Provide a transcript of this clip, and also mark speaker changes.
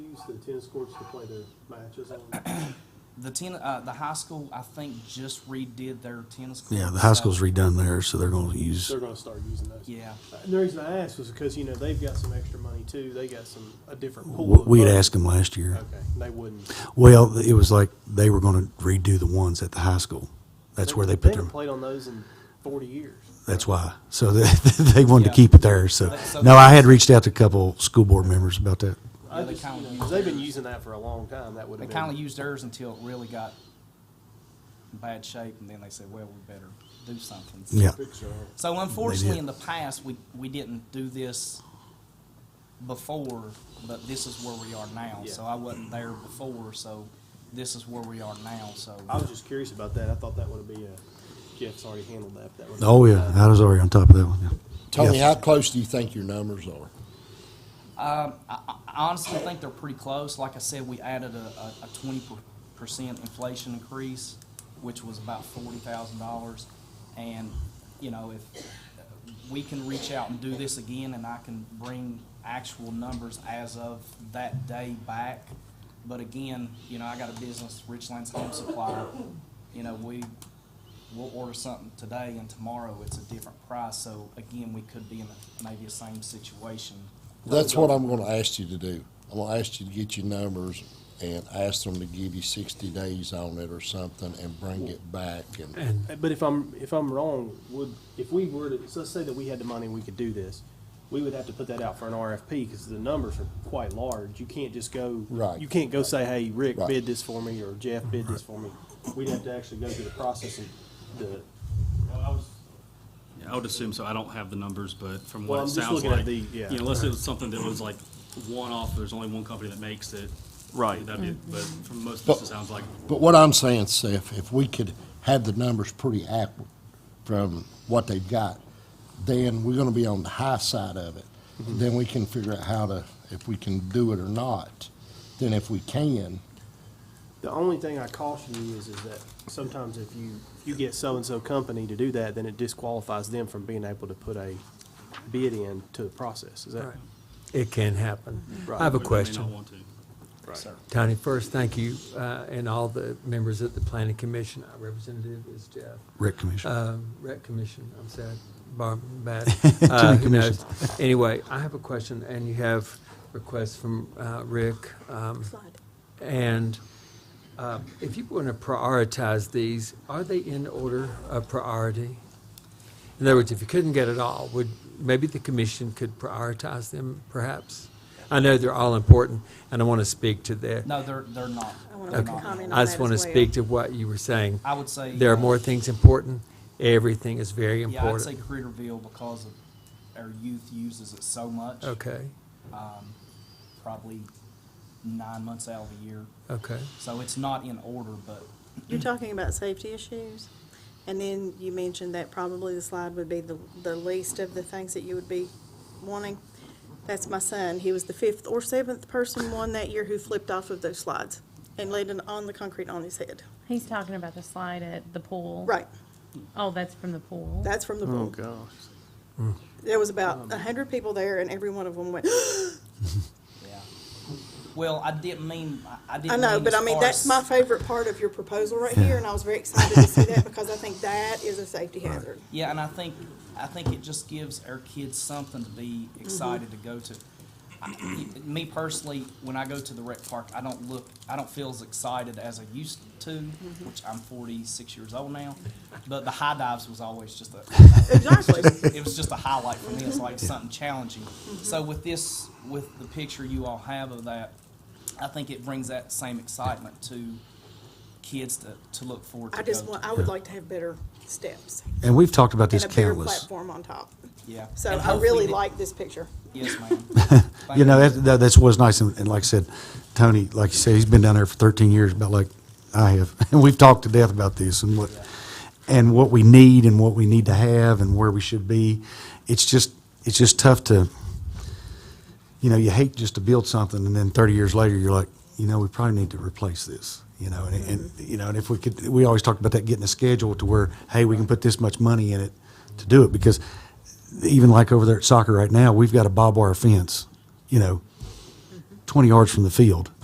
Speaker 1: courts, the tennis courts to play their matches on?
Speaker 2: The ten, uh, the high school, I think, just redid their tennis court.
Speaker 3: Yeah, the high
Speaker 2: so-
Speaker 3: school's redone there, so they're gonna use,
Speaker 1: They're gonna start using those.
Speaker 2: Yeah,
Speaker 1: And the reason I asked was because, you know, they've got some extra money too. They got some, a different pool.
Speaker 3: we had
Speaker 1: of money.
Speaker 3: asked them last year.
Speaker 1: Okay, they wouldn't.
Speaker 3: Well, it was like they were gonna redo the ones at the high school. That's where they put
Speaker 1: haven't
Speaker 3: them.
Speaker 1: Played on those in forty years.
Speaker 3: That's why. So they, they wanted
Speaker 2: Yeah.
Speaker 3: to keep it there, so.
Speaker 2: So-
Speaker 3: No, I had reached out to a couple school board members about that.
Speaker 1: I
Speaker 2: Yeah, they
Speaker 1: just,
Speaker 2: kinda
Speaker 1: you know,
Speaker 2: use
Speaker 1: 'cause they've been using that for a long time. That would
Speaker 2: they
Speaker 1: have
Speaker 2: kind of
Speaker 1: been.
Speaker 2: used theirs until it really got in bad shape, and then they said, "Well, we better do something."
Speaker 3: Yeah,
Speaker 2: So unfortunately,
Speaker 3: did.
Speaker 2: in the past, we, we didn't do this before, but this is where we are now.
Speaker 1: Yeah.
Speaker 2: So I wasn't there before, so this is where we are now, so.
Speaker 1: I was just curious about that. I thought that would be a, Jeff's already handled that. but that would've
Speaker 3: oh,
Speaker 1: been-
Speaker 3: yeah, I was already on top of that one, yeah.
Speaker 4: Tony,
Speaker 3: Yeah.
Speaker 4: how close do you think your numbers are?
Speaker 2: I honestly think they're pretty close. Like I said, we added a, a twenty percent inflation increase, which was about forty thousand dollars. And, you know, if we can reach out and do this again, and I can bring actual numbers as of that day back. But again, you know, I got a business, Richlands Home Supply, you know, we, we'll order something today and tomorrow it's a different price. So again, we could be in a- maybe the same situation.
Speaker 4: That's what I'm gonna ask you to do. I'm gonna ask you to get your numbers and ask them to give you sixty days on it or something and bring it back and,
Speaker 1: Uh, But if I'm, if I'm wrong, would, if we were to, so let's say that we had the money and we could do this, we would have to put that out for an RFP because the numbers are quite large. You can't just go.
Speaker 4: Right.
Speaker 1: You can't go say, hey, Rick
Speaker 4: Right.
Speaker 1: bid this for me or Jeff bid this for me. We'd have to actually go through the process and the,
Speaker 5: Yeah, I would assume so. I don't have the numbers, but from
Speaker 1: Well,
Speaker 5: what
Speaker 1: I'm
Speaker 5: it
Speaker 1: just
Speaker 5: sounds
Speaker 1: looking at
Speaker 5: like,
Speaker 1: the-
Speaker 5: you
Speaker 1: yeah.
Speaker 5: know, unless it was something that was like one off, there's only one company that makes it.
Speaker 6: Right.
Speaker 5: That'd be, but from most of
Speaker 4: But-
Speaker 5: this, it sounds like,
Speaker 4: but what I'm saying, Seth, if we could have the numbers pretty accurate from what they've got, then we're gonna be on the high side of it. Then we can figure out how to, if we can do it or not. Then if we can,
Speaker 1: The only thing I caution you is, is that sometimes if you, if you get so-and-so company to do that, then it disqualifies them from being able to put a bid in to the process, is that?
Speaker 6: Right. It can happen.
Speaker 1: Right.
Speaker 6: I have a
Speaker 5: they may not
Speaker 6: question.
Speaker 5: want to.
Speaker 6: Tony, first, thank you, uh, and all the members of the planning commission. Our representative is Jeff.
Speaker 3: Rec commission.
Speaker 6: Uh, Rec Commission, I'm sad, Bar, bad. Uh, who knows? Anyway, I have a question, and you have requests from, uh, Rick, um, and, uh, if you want to prioritize these, are they in order of priority? In other words, if you couldn't get it all, would, maybe the commission could prioritize them, perhaps? I know they're all important, and I want to speak to their.
Speaker 2: No, they're, they're not.
Speaker 7: I wanna
Speaker 2: They're
Speaker 7: make a
Speaker 2: not.
Speaker 7: comment.
Speaker 6: I just
Speaker 7: that
Speaker 6: want to
Speaker 7: as well.
Speaker 6: speak to what you were saying.
Speaker 2: I would say.
Speaker 6: There are
Speaker 2: uh,
Speaker 6: more things important. Everything is very
Speaker 2: Yeah, I'd say
Speaker 6: important.
Speaker 2: Critterville because of, our youth uses it so much.
Speaker 6: Okay,
Speaker 2: Probably nine months out of the year.
Speaker 6: okay.
Speaker 2: So it's not in order, but
Speaker 7: You're talking about safety issues, and then you mentioned that probably the slide would be the, the least of the things that you would be wanting. That's my son. He was the fifth or seventh person one that year who flipped off of those slides and landed on the concrete on his head.
Speaker 8: He's talking about the slide at the pool.
Speaker 7: Right,
Speaker 8: Oh, that's from the pool.
Speaker 7: that's from the pool.
Speaker 1: gosh.
Speaker 7: There was about a hundred people there, and every one of them went,
Speaker 2: yeah. Well, I didn't mean, I- I didn't
Speaker 7: I
Speaker 2: mean.
Speaker 7: know, but
Speaker 2: as
Speaker 7: I mean,
Speaker 2: far
Speaker 7: that's
Speaker 2: as-
Speaker 7: my favorite part of your proposal right here, and I was very excited to see that because I think that is a safety hazard.
Speaker 2: Yeah, and I think, I think it just gives our kids something to be
Speaker 7: Mm-hmm.
Speaker 2: excited to go to. I- Me personally, when I go to the rec park, I don't look, I don't feel as excited as I used to,
Speaker 7: Mm-hmm.
Speaker 2: which I'm forty-six years old now. But the high dives was always just a,
Speaker 7: Exactly.
Speaker 2: it was just a highlight for me. It's like something challenging.
Speaker 7: Mm-hmm.
Speaker 2: So with this, with the picture you all have of that, I think it brings that same excitement to kids to, to look forward to.
Speaker 7: I just
Speaker 2: go
Speaker 7: want,
Speaker 2: to.
Speaker 7: I would like to have better steps
Speaker 3: And we've talked about
Speaker 7: and
Speaker 3: this
Speaker 7: a bigger
Speaker 3: countless.
Speaker 7: platform on top.
Speaker 2: Yeah.
Speaker 7: So
Speaker 2: And
Speaker 7: I
Speaker 2: hopefully
Speaker 7: really
Speaker 2: that-
Speaker 7: like this picture.
Speaker 2: Yes, ma'am. Thank
Speaker 3: You know, that, that- that's what's nice, and, and like I said, Tony, like you said, he's been down there for thirteen years, about like I have, and we've talked to death about this and what, and what we need and what we need to have and where we should be. It's just, it's just tough to, you know, you hate just to build something and then thirty years later, you're like, you know, we probably need to replace this, you know, and, and, you know, and if we could, we always talked about that getting a schedule to where, hey, we can put this much money in it to do it, because even like over there at soccer right now, we've got a barbed wire fence, you know, twenty yards from the field.